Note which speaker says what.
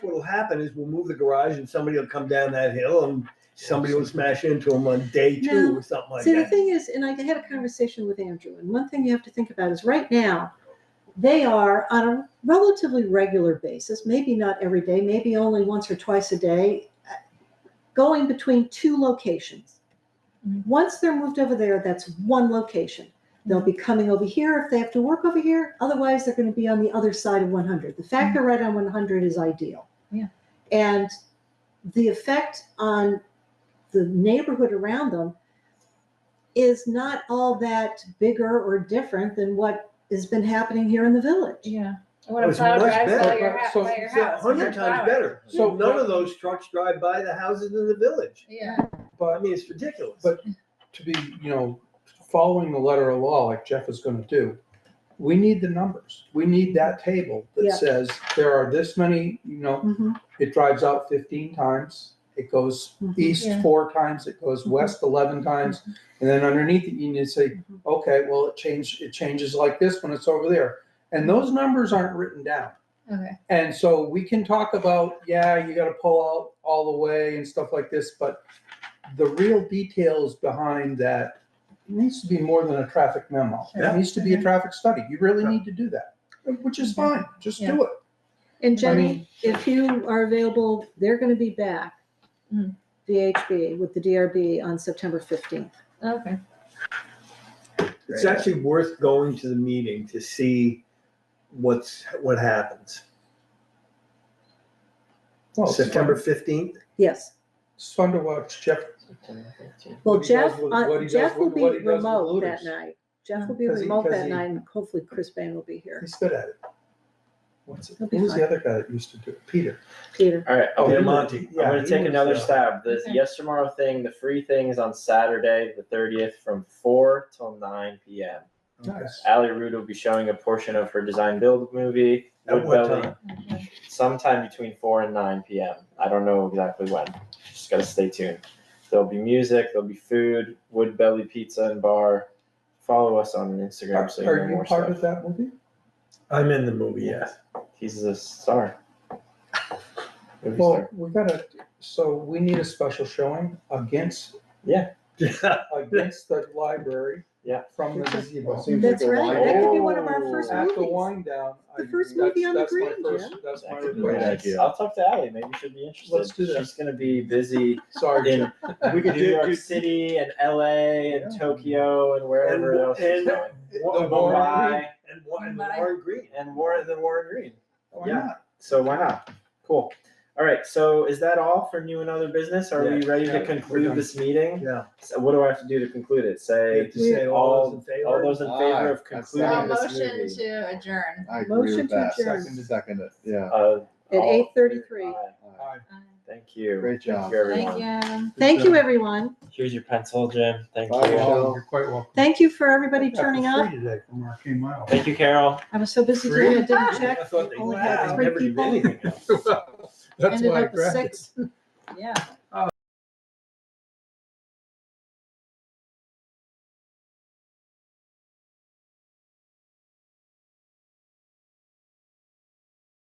Speaker 1: will happen is we'll move the garage and somebody will come down that hill and somebody will smash into them on day two or something like
Speaker 2: See, the
Speaker 1: that.
Speaker 2: thing is, and I had a conversation with Andrew, and one thing you have to think about is right now, they are on a relatively regular basis, maybe not every day, maybe only once or twice a day, uh, going between two locations. Once they're moved over there, that's one location. They'll be coming over here if they have to work over here. Otherwise, they're going to be on the other side of 100. The fact they're right on 100 is ideal.
Speaker 3: Yeah.
Speaker 2: And the effect on the neighborhood around them is not all that bigger or different than what has been happening here in the village.
Speaker 3: Yeah.
Speaker 4: I want
Speaker 1: Oh,
Speaker 4: to
Speaker 1: it's
Speaker 4: plow
Speaker 1: much
Speaker 4: drives by
Speaker 1: better.
Speaker 4: your, ha-
Speaker 5: So-
Speaker 4: by your
Speaker 1: It's a
Speaker 4: house. and
Speaker 1: hundred
Speaker 4: your
Speaker 1: times
Speaker 4: flowers.
Speaker 1: better.
Speaker 5: So-
Speaker 1: None of those trucks drive by the houses in the village.
Speaker 4: Yeah.
Speaker 1: I
Speaker 5: But
Speaker 1: mean, it's ridiculous.
Speaker 5: But- to be, you know, following the letter of law like Jeff is gonna do, we need the numbers. We need that table
Speaker 2: Yeah.
Speaker 5: that says there are this many, you know,
Speaker 2: Mhm.
Speaker 5: it drives out fifteen times. It goes
Speaker 2: Mhm.
Speaker 5: east
Speaker 3: Yeah.
Speaker 5: four times, it goes west eleven times. And then underneath it, you need to say,
Speaker 2: Mhm.
Speaker 5: okay, well, it changed, it changes like this when it's over there. And those numbers aren't written down.
Speaker 3: Okay.
Speaker 5: And so we can talk about, yeah, you gotta pull out all the way and stuff like this, but the real details behind that it needs to be more than a traffic memo.
Speaker 1: Yeah.
Speaker 5: It needs to be
Speaker 2: Mm-hmm.
Speaker 5: a traffic study. You really
Speaker 1: Yeah.
Speaker 5: need to do that, which is fine. Just do it.
Speaker 2: And
Speaker 5: I
Speaker 2: Jenny,
Speaker 5: mean,
Speaker 2: if you are available, they're going to be back,
Speaker 5: Mm-hmm.
Speaker 3: Mm.
Speaker 2: VHB with the DRB on September 15th.
Speaker 3: Okay.
Speaker 1: It's actually worth going to the meeting to see what's, what happens. Oh,
Speaker 5: Well, it's fun-
Speaker 1: September fifteenth?
Speaker 2: Yes.
Speaker 5: It's fun to watch Jeff.
Speaker 2: Well,
Speaker 5: What he does
Speaker 2: Jeff,
Speaker 5: with-
Speaker 2: uh,
Speaker 5: what he does
Speaker 2: Jeff will
Speaker 5: with- what
Speaker 2: be
Speaker 5: he does with
Speaker 2: remote that
Speaker 5: looters.
Speaker 2: night. Jeff will be
Speaker 5: 'Cause he-
Speaker 2: remote
Speaker 5: 'cause
Speaker 2: that
Speaker 5: he-
Speaker 2: night and hopefully Chris Bain will be here.
Speaker 5: He's good at it. What's it?
Speaker 2: He'll be
Speaker 5: Who was
Speaker 2: fine.
Speaker 5: the other guy that used to do it? Peter.
Speaker 2: Peter,
Speaker 6: All right,
Speaker 1: Oh,
Speaker 6: oh,
Speaker 1: yeah,
Speaker 6: I'm gonna-
Speaker 1: Monty.
Speaker 5: Yeah,
Speaker 6: I'm gonna
Speaker 5: he
Speaker 6: take
Speaker 5: was,
Speaker 6: another
Speaker 5: uh,
Speaker 6: stab. The
Speaker 3: Okay.
Speaker 6: yes tomorrow thing, the free thing is on Saturday, the thirtieth, from four till nine p.m.
Speaker 5: Nice.
Speaker 6: Allie Rude will be showing a portion of her design build movie.
Speaker 1: At what
Speaker 6: Woodbelly,
Speaker 1: time?
Speaker 3: Okay.
Speaker 6: Sometime between four and nine p.m. I don't know exactly when. Just gotta stay tuned. There'll be music. There'll be food. Woodbelly Pizza and Bar. Follow us on Instagram
Speaker 5: Are
Speaker 6: so you know
Speaker 5: are you
Speaker 6: more
Speaker 5: part
Speaker 6: stuff.
Speaker 5: of that movie?
Speaker 1: I'm in the movie, yes.
Speaker 6: He's a star. Movie
Speaker 5: Well,
Speaker 6: star.
Speaker 5: we gotta, so we need a special showing against, against the library.
Speaker 6: Yeah.
Speaker 5: From the gazebo.
Speaker 7: Seems
Speaker 2: that's
Speaker 7: like a
Speaker 2: right.
Speaker 7: line.
Speaker 2: That could be one of our
Speaker 6: Oh.
Speaker 2: first
Speaker 5: At the
Speaker 2: movies.
Speaker 5: wind down.
Speaker 2: The
Speaker 5: I-
Speaker 2: first
Speaker 5: that's-
Speaker 2: movie on the
Speaker 5: that's my
Speaker 2: green,
Speaker 5: first-
Speaker 2: Jim.
Speaker 5: That's my
Speaker 6: That could be a good
Speaker 5: request.
Speaker 6: idea. I'll talk to Allie. Maybe she would be interested.
Speaker 5: Let's do that.
Speaker 6: She's gonna be busy
Speaker 5: Sorry, Jim.
Speaker 6: in
Speaker 1: We could
Speaker 6: New
Speaker 1: do-
Speaker 6: York City and LA and
Speaker 5: Yeah.
Speaker 6: Tokyo and wherever
Speaker 1: And-
Speaker 6: else she's
Speaker 1: and-
Speaker 6: going.
Speaker 1: Wa-
Speaker 5: The
Speaker 1: Warren
Speaker 6: Mumbai
Speaker 1: Green. And Wa- and
Speaker 4: Mumbai.
Speaker 1: Warren Green.
Speaker 6: and Warren then Warren Green.
Speaker 5: Why
Speaker 6: Yeah.
Speaker 5: not?
Speaker 6: So why not? Cool. All right. So is that all for new and other business? Are we
Speaker 1: Yeah.
Speaker 6: ready
Speaker 1: Yeah,
Speaker 6: to
Speaker 1: we're
Speaker 6: conclude
Speaker 5: done.
Speaker 6: this meeting?
Speaker 1: Yeah.
Speaker 6: So what do I have to do to conclude it?
Speaker 1: You
Speaker 6: Say
Speaker 1: have to say all those in
Speaker 6: all
Speaker 1: favor.
Speaker 6: those in favor of
Speaker 7: Aye. That's
Speaker 6: concluding
Speaker 7: fine.
Speaker 4: Uh,
Speaker 6: this
Speaker 4: motion
Speaker 6: movie.
Speaker 4: to adjourn.
Speaker 7: I agree
Speaker 2: Motion
Speaker 7: with
Speaker 2: to
Speaker 7: that.
Speaker 2: adjourn.
Speaker 7: Second, second it, yeah.
Speaker 6: Uh,
Speaker 2: At
Speaker 6: all-
Speaker 2: 8:33.
Speaker 6: Aye.
Speaker 5: Aye.
Speaker 6: Thank you.
Speaker 7: Great job.
Speaker 6: Thank you, everyone.
Speaker 4: Thank you.
Speaker 2: Thank you, everyone.
Speaker 6: Here's your pencil, Jim. Thank
Speaker 7: Bye,
Speaker 6: you.
Speaker 7: Michelle.
Speaker 5: You're quite welcome.
Speaker 2: Thank you for everybody
Speaker 5: Yeah, for
Speaker 2: turning
Speaker 5: free
Speaker 2: up.
Speaker 5: Today from Arcane Mile.
Speaker 6: Thank you, Carol.
Speaker 2: I was so busy
Speaker 5: Free?
Speaker 2: today, I didn't check.
Speaker 1: I thought they-
Speaker 2: Only
Speaker 1: wow,
Speaker 2: had
Speaker 1: they
Speaker 2: three
Speaker 1: never did
Speaker 2: people.
Speaker 1: anything.
Speaker 5: That's
Speaker 2: Ended
Speaker 5: why I
Speaker 2: up with
Speaker 5: grabbed it.
Speaker 2: six.
Speaker 4: Yeah.